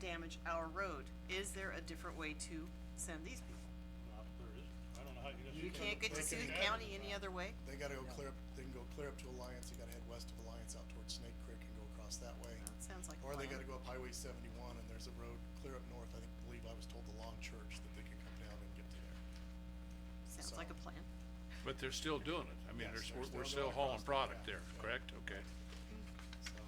damage our road. Is there a different way to send these people? Not if there is. I don't know how you. You can't get to break Sioux it down. County any other way? They gotta go clear up, they can go clear up to Alliance, they gotta head west of Alliance out towards Snake Creek and go across that way. That sounds like a Or they plan. gotta go up Highway seventy-one and there's a road clear up north, I think, believe I was told the Long Church that they could come down and get to there. Sounds like a plan. But they're still doing it. I mean, Yes, they're there's, we're, we're still still going hauling across the- product yeah, there, yeah. correct? Okay. So,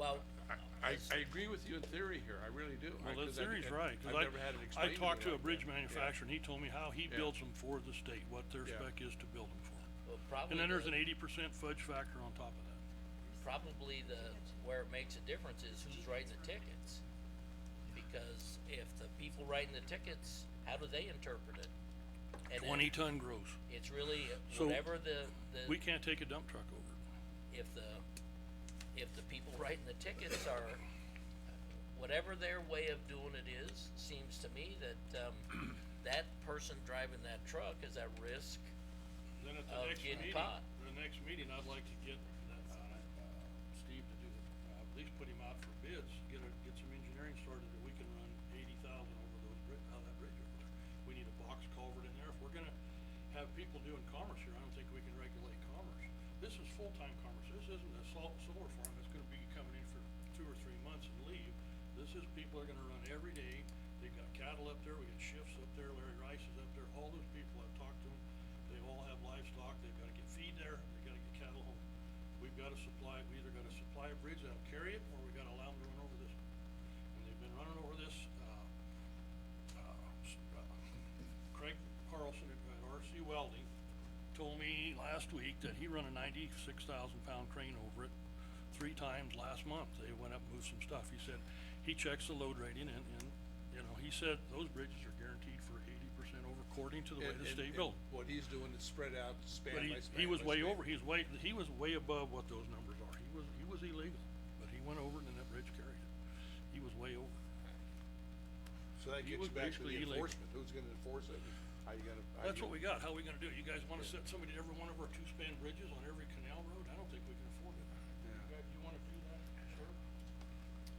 Well, I, I, I agree with you in theory here. I really do. I- Well, the 'cause I- theory's I- right, I've 'cause never had I, I it explained to me talked to a like bridge that. Yeah. manufacturer and he told me how he Yeah. builds them for the state, what their Yeah. spec is to build them for. well, probably And then there's an the, eighty percent fudge factor on top of that. probably the, where it makes a difference is who's writing the tickets. Because if the people writing the tickets, how do they interpret it? And then Twenty ton gross. It's really So, whatever the, We the, can't take a dump truck over. if the, if the people writing the tickets are, whatever their way of doing it is, seems to me that, um, that person driving that truck is at risk. Then at Of getting caught. the next meeting, I'd like to get that, uh, Steve to do, uh, at least put him out for bids, get a, get some engineering started that we can run eighty thousand over those bri- out of that bridge over there. We need a box culvert in there. If we're gonna have people doing commerce here, I don't think we can regulate commerce. This is full-time commerce. This isn't a sol- solar farm that's gonna be coming in for two or three months and leave. This is people are gonna run every day. They've got cattle up there. We got shifts up there. Larry Rice is up there. All those people I've talked to, 'em, they all have livestock, they've gotta get feed there, they gotta get cattle home. We've gotta supply, we either gotta supply a bridge that'll carry it, or we gotta allow them to run over this. And they've been running over this, uh, uh, s- uh, Craig Carlson at at RC Welding told me last week that he run a ninety-six thousand pound crane over it three times last month. They went up, moved some stuff. He said, he checks the load rating and, and, you know, he said those bridges are guaranteed for eighty percent over according to the way And- the and- state and built. What he's doing is spread out, span But he, by span. he was by way span. over, he's way, he was way above what those numbers are, he was, he was illegal, but he went over and then that bridge carried it, he was way over. So that he gets was you back to basically the illegal. enforcement. Who's gonna enforce it? How you gonna? how That's you- what we got, how we gonna do it, you guys wanna set somebody to every one of our two-span bridges on every canal road, I don't think we can afford it. You Yeah. guys, you wanna do that, sure?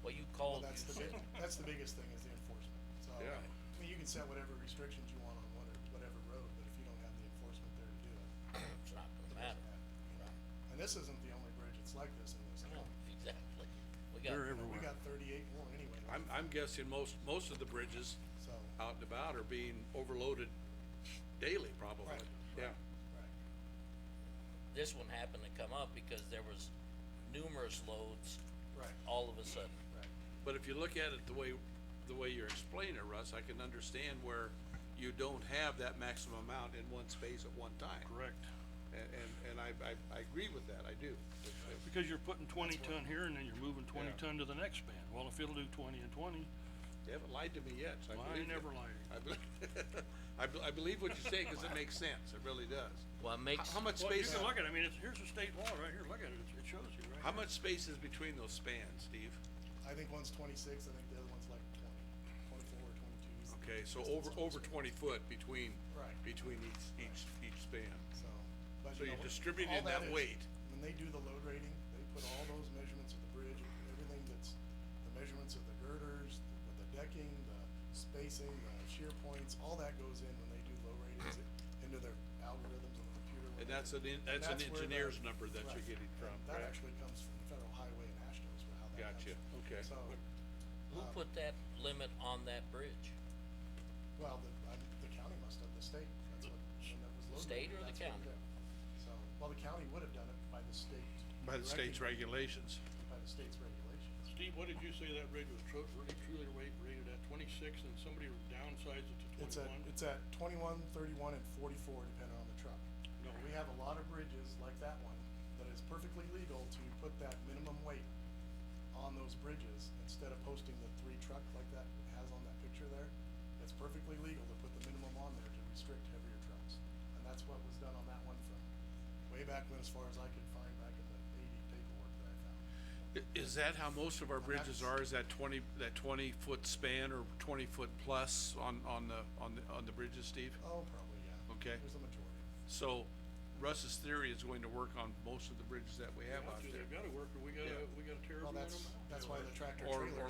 Well, you well, called, that's the you big, said, that's the biggest thing is the enforcement, so. Yeah. I mean, you can set whatever restrictions you want on whatever, whatever road, but if you don't have the enforcement there to do it, it it's not doesn't gonna matter. happen, you know? And this isn't the only bridge that's like this in this No, county. exactly. We got, They're We everywhere, got thirty-eight more anyway, I'm, I'm guessing most, most of the bridges so, out and about are being overloaded daily probably. Right. Yeah. right. this one happened to come up because there was numerous loads Right. all of a sudden. Right. But if you look at it the way, the way you're explaining it, Russ, I can understand where you don't have that maximum amount in one space at one time. correct, And, and, and I, I, I agree with that, I do. because you're putting twenty ton here and then you're moving twenty Yeah. ton to the next span, well, if it'll do twenty and twenty, You haven't lied to me yet, so I Well, I believe you. never lied. I believe, I, be- I believe what you say, cause it makes sense, it really does. Well, it makes, How, how much well, you space, can look at, it. I mean, it's, here's the state law right here, look at it, it it shows you right how here. much space is between those spans, Steve? I think one's twenty-six, I think the other one's like twenty, twenty-four, twenty-two. is the Okay, so distance over, on over this one. twenty foot between, Right. between each, each, each span. So, but So you know, you're what- distributing all that is- weight. When they do the load rating, they put all those measurements of the bridge, everything that's, the measurements of the girders, the- the decking, the spacing, the shear points, all that goes in when they do load ratings it- into their algorithms on the computer. when And they- that's an en- and that's an where the- engineer's number that you're right. getting And from, That correct? actually comes from Federal Highway and Ashdod's for how that comes. Gotcha, okay. So, who uh, put that limit on that bridge? well, the, I, the county must have, the state, that's what, when that was loaded. State or the that's what county? it did. So, well, the county would have done it by the state. By the state's directing- regulations. by the state's regulations. Steve, what did you say that bridge was tru- really truly rate rated at twenty-six and somebody downsized it to It's at, twenty-one? it's at twenty-one, thirty-one, and forty-four, depending on the truck. No. We have a lot of bridges like that one, that is perfectly legal to put that minimum weight on those bridges, instead of posting the three truck like that has on that picture there. It's perfectly legal to put the minimum on there to restrict heavier trucks, and that's what was done on that one from way back when, as far as I could find back in the eighty paperwork that I found. I- Is that how most of our bridges that's- are, is that twenty, that twenty foot span or twenty foot plus on, on the, on the, on the bridges, Steve? Oh, probably, yeah. Okay. There's a majority. So Russ's theory is going to work on most of the bridges that we have out They've there. gotta work, or we gotta, Yeah. we gotta tear Well, every one of them out. that's, that's why the tractor Or- trailers. or